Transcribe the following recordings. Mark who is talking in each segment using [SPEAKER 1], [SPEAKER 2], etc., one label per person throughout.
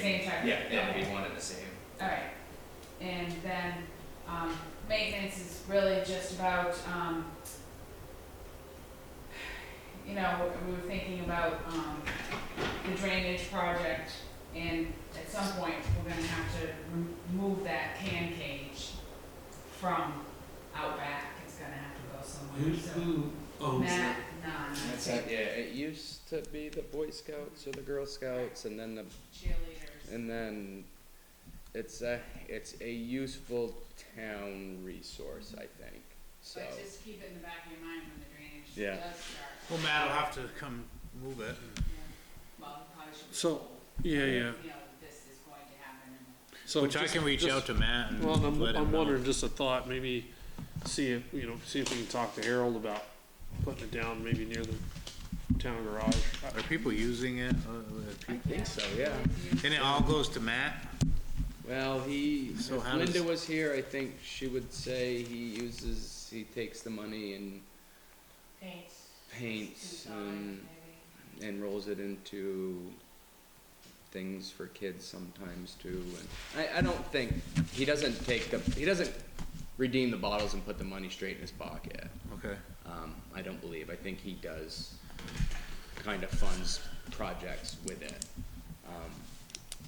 [SPEAKER 1] same check?
[SPEAKER 2] Yeah, it
[SPEAKER 1] Okay.
[SPEAKER 2] would be one and the same.
[SPEAKER 1] Alright, and then, um, maintenance is really just about, um, you know, we were thinking about, um, the drainage project, and at some point, we're gonna have to remove that can cage from out back, it's gonna have to go
[SPEAKER 3] Who,
[SPEAKER 1] somewhere, so.
[SPEAKER 3] who owns
[SPEAKER 1] Matt,
[SPEAKER 3] that?
[SPEAKER 1] nah,
[SPEAKER 2] That's it, yeah, it used to be the Boy Scouts or the Girl Scouts and then the,
[SPEAKER 1] cheerleaders.
[SPEAKER 2] and then it's a, it's a useful town resource, I think, so.
[SPEAKER 1] But just keep it in the back of your mind when the drainage
[SPEAKER 2] Yeah.
[SPEAKER 1] does start,
[SPEAKER 4] Well, Matt will have to come move it.
[SPEAKER 1] yeah, well, it probably should be
[SPEAKER 3] So-
[SPEAKER 1] sold.
[SPEAKER 3] Yeah,
[SPEAKER 1] you
[SPEAKER 3] yeah.
[SPEAKER 1] know, this is going to happen and
[SPEAKER 3] So
[SPEAKER 4] Which I
[SPEAKER 3] just-
[SPEAKER 4] can reach
[SPEAKER 3] just-
[SPEAKER 4] out to Matt and
[SPEAKER 3] Well, and I'm,
[SPEAKER 4] let him
[SPEAKER 3] I'm
[SPEAKER 4] know.
[SPEAKER 3] wondering, just a thought, maybe see if, you know, see if we can talk to Harold about putting it down maybe near the town garage.
[SPEAKER 4] Are people using it? Uh, uh,
[SPEAKER 2] I
[SPEAKER 4] people-
[SPEAKER 2] think so, yeah.
[SPEAKER 4] And it all goes to Matt?
[SPEAKER 2] Well, he, if
[SPEAKER 4] So how
[SPEAKER 2] Linda
[SPEAKER 4] does-
[SPEAKER 2] was here, I think she would say he uses, he takes the money and
[SPEAKER 1] Paints.
[SPEAKER 2] paints and, and rolls it into things for kids sometimes too. And I, I don't think, he doesn't take the, he doesn't redeem the bottles and put the money straight in his pocket.
[SPEAKER 4] Okay.
[SPEAKER 2] Um, I don't believe, I think he does kind of funds projects with it,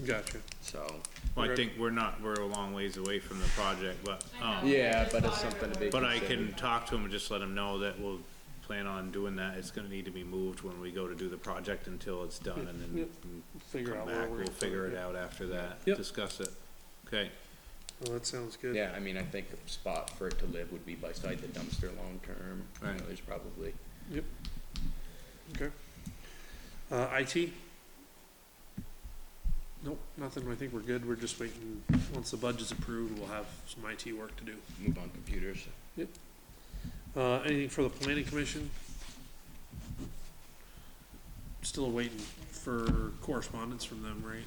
[SPEAKER 3] Gotcha.
[SPEAKER 2] so.
[SPEAKER 4] Well, I think we're not, we're a long ways away from the project, but,
[SPEAKER 1] I
[SPEAKER 4] um,
[SPEAKER 1] know.
[SPEAKER 2] Yeah, but it's something to be
[SPEAKER 4] but I
[SPEAKER 2] considered.
[SPEAKER 4] can talk to him and just let him know that we'll plan on doing that. It's gonna need to be moved when we go to do the project until it's done and
[SPEAKER 3] Yeah.
[SPEAKER 4] then
[SPEAKER 3] Figure
[SPEAKER 4] come
[SPEAKER 3] out where
[SPEAKER 4] back.
[SPEAKER 3] we're.
[SPEAKER 4] We'll figure it out after that,
[SPEAKER 3] Yep.
[SPEAKER 4] discuss it. Okay,
[SPEAKER 3] Well, that sounds good.
[SPEAKER 2] Yeah, I mean, I think a spot for it to live would be beside the dumpster long term. You know,
[SPEAKER 4] Right.
[SPEAKER 2] There's probably,
[SPEAKER 3] Okay. Uh, IT? Nope, nothing. I think we're good. We're just waiting. Once the budget's approved, we'll have some IT work to do.
[SPEAKER 2] move on computers.
[SPEAKER 3] Uh, anything for the planning commission? Still waiting for correspondence from them, right?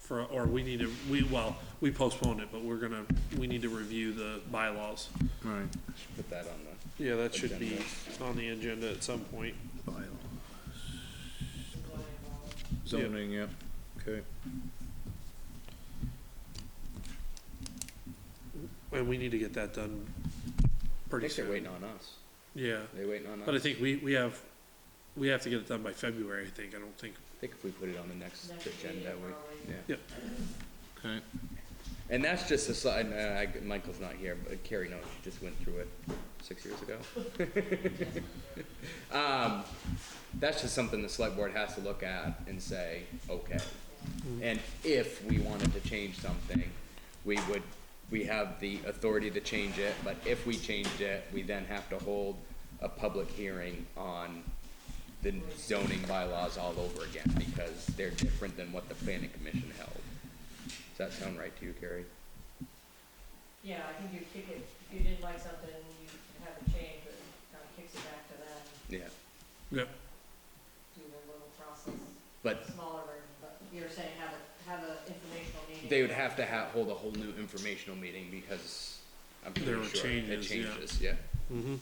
[SPEAKER 3] For, or we need to, we, well, we postponed it, but we're gonna, we need to review the bylaws.
[SPEAKER 4] all right.
[SPEAKER 2] Should Put that on the,
[SPEAKER 3] Yeah, that should be
[SPEAKER 2] Agenda.
[SPEAKER 3] on the agenda at some point.
[SPEAKER 4] Bylaws. Zoning, yep, okay.
[SPEAKER 3] And we need to get that done
[SPEAKER 2] I
[SPEAKER 3] pretty
[SPEAKER 2] think they're
[SPEAKER 3] soon.
[SPEAKER 2] waiting on us.
[SPEAKER 3] Yeah,
[SPEAKER 2] They're waiting on us.
[SPEAKER 3] but I think we, we have, we have to get it done by February, I think. I don't think,
[SPEAKER 2] I think if we put it on the next
[SPEAKER 1] Next
[SPEAKER 2] agenda,
[SPEAKER 1] meeting,
[SPEAKER 2] we, yeah.
[SPEAKER 4] Okay,
[SPEAKER 2] And that's just a side, uh, I, Michael's not here, but Carrie knows, she just went through it six years ago. Um, that's just something the select board has to look at and say, okay. And if we wanted to change something, we would, we have the authority to change it, but if we changed it, we then have to hold a public hearing on the zoning bylaws all over again, because they're different than what the planning commission held. Does that sound right to you, Carrie?
[SPEAKER 5] Yeah, I think you kick it, if you didn't like something, you have a change, but it kind of kicks it back to them,
[SPEAKER 2] Yeah,
[SPEAKER 3] yeah,
[SPEAKER 5] do the little process,
[SPEAKER 2] but
[SPEAKER 5] smaller version, but you're saying have a, have a informational meeting.
[SPEAKER 2] they would have to have, hold a whole new informational meeting because I'm
[SPEAKER 3] There
[SPEAKER 2] pretty
[SPEAKER 3] were
[SPEAKER 2] sure it
[SPEAKER 3] changes, yeah.
[SPEAKER 2] changes, yeah.
[SPEAKER 3] Mm-hmm.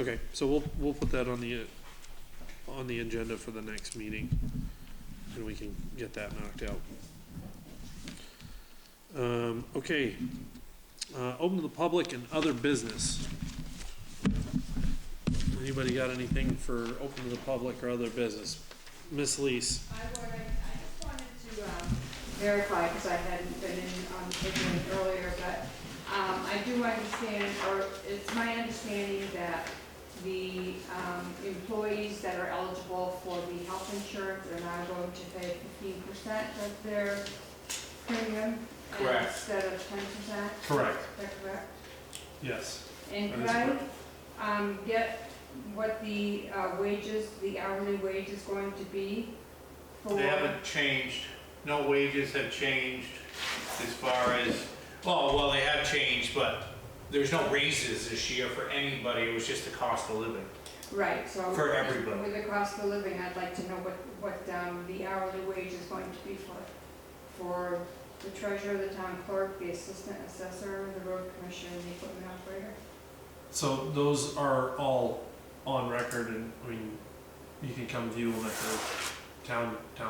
[SPEAKER 3] Okay, so we'll, we'll put that on the, uh, on the agenda for the next meeting, and we can get that knocked out. Um, okay, uh, open to the public and other business. Anybody got anything for open to the public or other business? Miss Lees,
[SPEAKER 5] I would, I just wanted to, um, verify, because I hadn't been in on the picnic earlier, but, um, I do understand, or it's my understanding that the, um, employees that are eligible for the health insurance are now going to pay fifteen percent of their premium.
[SPEAKER 3] Correct.
[SPEAKER 5] Instead of ten percent,
[SPEAKER 3] Correct.
[SPEAKER 5] is that correct?
[SPEAKER 3] Yes.
[SPEAKER 5] And
[SPEAKER 3] That
[SPEAKER 5] could
[SPEAKER 3] is
[SPEAKER 5] I, um, get what the uh, wages, the hourly wage is going to be for?
[SPEAKER 6] They haven't changed, no wages have changed as far as, well, well, they have changed, but there's no raises this year for anybody, it was just the cost of living.
[SPEAKER 5] Right, so.
[SPEAKER 6] For everybody.
[SPEAKER 5] With the cost of living, I'd like to know what, what, um, the hourly wage is going to be for, for the treasurer, the town clerk, the assistant assessor, the road commissioner, and the equipment operator.
[SPEAKER 3] So those are all on record and, I mean, you can come view them at the town, town